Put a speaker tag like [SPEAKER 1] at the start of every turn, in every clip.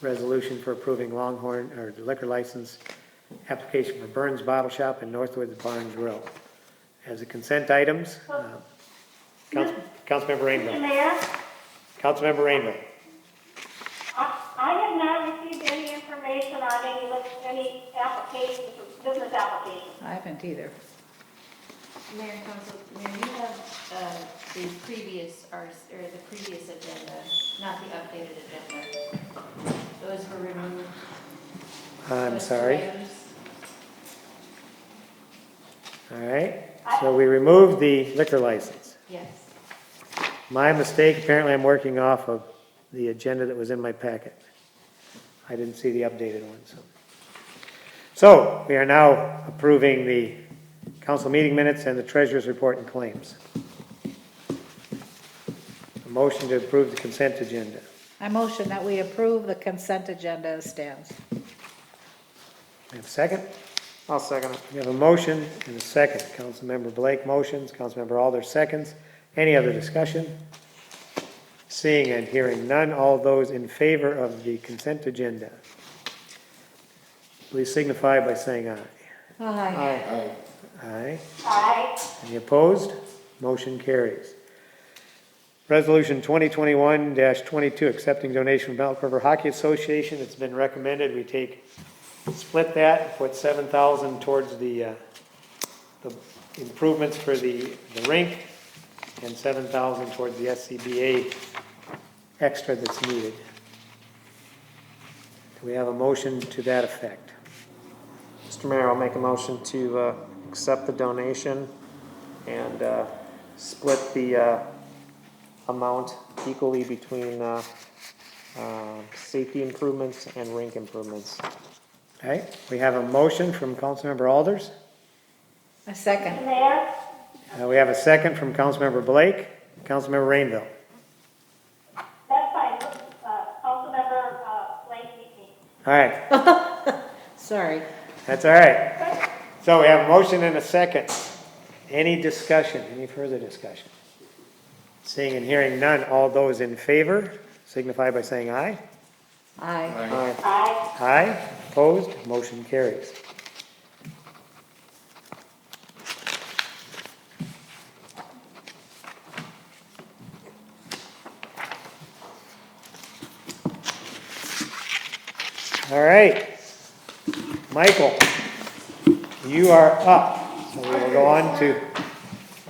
[SPEAKER 1] resolution for approving Longhorn, or liquor license application for Burns Bottle Shop and Northwoods Barn Grill. As the consent items, uh, Council, Councilmember
[SPEAKER 2] Mr.
[SPEAKER 1] Rainville,
[SPEAKER 2] Mayor,
[SPEAKER 1] Councilmember Rainville.
[SPEAKER 2] I I have not received any information on any, list- any applications, business applications.
[SPEAKER 3] I haven't either.
[SPEAKER 4] Mayor and Council, Mayor, you have uh, the previous, RS or the previous agenda, not the updated agenda. Those were removed.
[SPEAKER 1] I'm
[SPEAKER 4] Those two
[SPEAKER 1] sorry.
[SPEAKER 4] items.
[SPEAKER 1] All right, so we removed the liquor license.
[SPEAKER 4] Yes.
[SPEAKER 1] My mistake, apparently I'm working off of the agenda that was in my packet. I didn't see the updated one, so. So, we are now approving the council meeting minutes and the treasurer's report and claims. A motion to approve the consent agenda.
[SPEAKER 3] I motion that we approve the consent agenda as stands.
[SPEAKER 1] We have a second?
[SPEAKER 5] I'll second it.
[SPEAKER 1] We have a motion and a second. Councilmember Blake motions, Councilmember Alder seconds. Any other discussion? Seeing and hearing none, all those in favor of the consent agenda, please signify by saying aye.
[SPEAKER 3] Aye.
[SPEAKER 5] Aye.
[SPEAKER 1] Aye.
[SPEAKER 2] Aye.
[SPEAKER 1] Any opposed? Motion carries. Resolution 2021-22, accepting donation from Elk River Hockey Association. It's been recommended we take, split that, put 7,000 towards the, uh, the improvements for the, the rink, and 7,000 towards the SCBA extra that's needed. Do we have a motion to that effect?
[SPEAKER 5] Mr. Mayor, I'll make a motion to uh, accept the donation and uh, split the uh, amount equally between uh, uh, safety improvements and rink improvements.
[SPEAKER 1] All right, we have a motion from Councilmember Alders.
[SPEAKER 3] A
[SPEAKER 2] Mr.
[SPEAKER 3] second.
[SPEAKER 2] Mayor,
[SPEAKER 1] Uh, We have a second from Councilmember Blake, Councilmember Rainville.
[SPEAKER 2] that's fine. Uh, Councilmember uh, Blake Meeking.
[SPEAKER 1] All right,
[SPEAKER 3] Sorry.
[SPEAKER 1] that's all right. So we have a motion and a second. Any discussion, any further discussion? Seeing and hearing none, all those in favor signify by saying aye.
[SPEAKER 3] Aye.
[SPEAKER 5] Aye.
[SPEAKER 2] Aye.
[SPEAKER 1] Aye, opposed, motion carries. All right. Michael, you are up. So we will go on to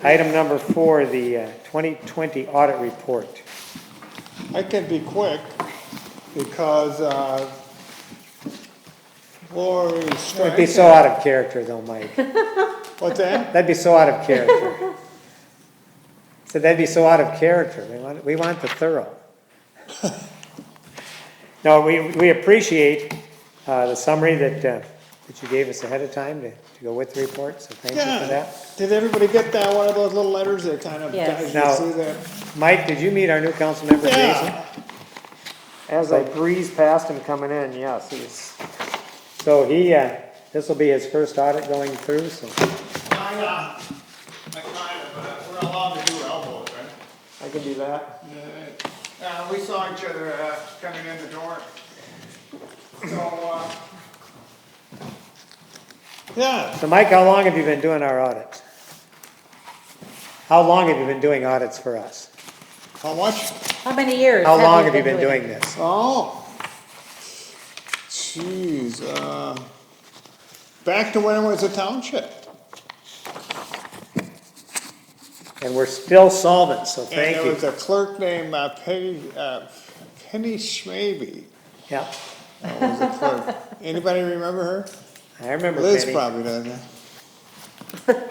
[SPEAKER 1] item number four, the uh, 2020 audit report.
[SPEAKER 6] I can be quick because uh, Lori
[SPEAKER 1] That'd be
[SPEAKER 6] Strike,
[SPEAKER 1] so out of character though, Mike.
[SPEAKER 6] what's that?
[SPEAKER 1] That'd be so out of character. So that'd be so out of character. We want, we want the thorough. No, we, we appreciate, uh, the summary that, uh, that you gave us ahead of time to, to go with the report, so thank you for
[SPEAKER 6] Yeah,
[SPEAKER 1] that.
[SPEAKER 6] did everybody get that, one of those little letters that kind of,
[SPEAKER 3] Yes.
[SPEAKER 6] guys,
[SPEAKER 1] No.
[SPEAKER 6] you see that?
[SPEAKER 1] Mike, did you meet our new council member, Jason?
[SPEAKER 6] Yeah,
[SPEAKER 5] As I breeze past him coming in, yes, he's,
[SPEAKER 1] So he, uh, this'll be his first audit going through, so,
[SPEAKER 7] Kind of, I kind of, but uh, we're allowed to do elbows, right?
[SPEAKER 5] I can do that.
[SPEAKER 7] Uh, we saw each other, uh, coming in the door. So, uh,
[SPEAKER 6] uh, yeah,
[SPEAKER 1] so Mike, how long have you been doing our audits? How long have you been doing audits for us?
[SPEAKER 6] how much?
[SPEAKER 3] How many years?
[SPEAKER 1] How long have you been doing this?
[SPEAKER 6] Oh. Jeez, uh, back to when it was a township.
[SPEAKER 1] And we're still solvent, so
[SPEAKER 6] And
[SPEAKER 1] thank
[SPEAKER 6] there was
[SPEAKER 1] you.
[SPEAKER 6] a clerk named uh, Peggy, uh, Penny Schmaby,
[SPEAKER 1] Yeah,
[SPEAKER 6] that was a clerk. Anybody remember her?
[SPEAKER 1] I remember
[SPEAKER 6] Liz
[SPEAKER 1] Penny.
[SPEAKER 6] probably doesn't.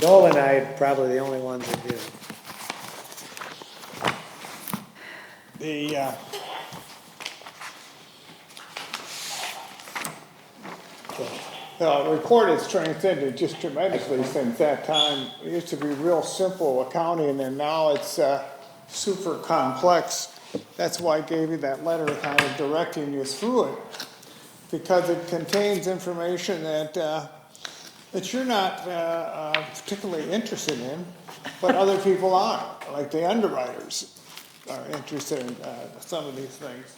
[SPEAKER 1] Joel and I are probably the only ones that do.
[SPEAKER 6] The, uh, the report has transcended just tremendously since that time. It used to be real simple accounting and now it's, uh, super complex. That's why I gave you that letter kind of directing you through it. Because it contains information that, uh, that you're not uh, uh, particularly interested in, but other people are, like the underwriters are interested in uh, some of these things.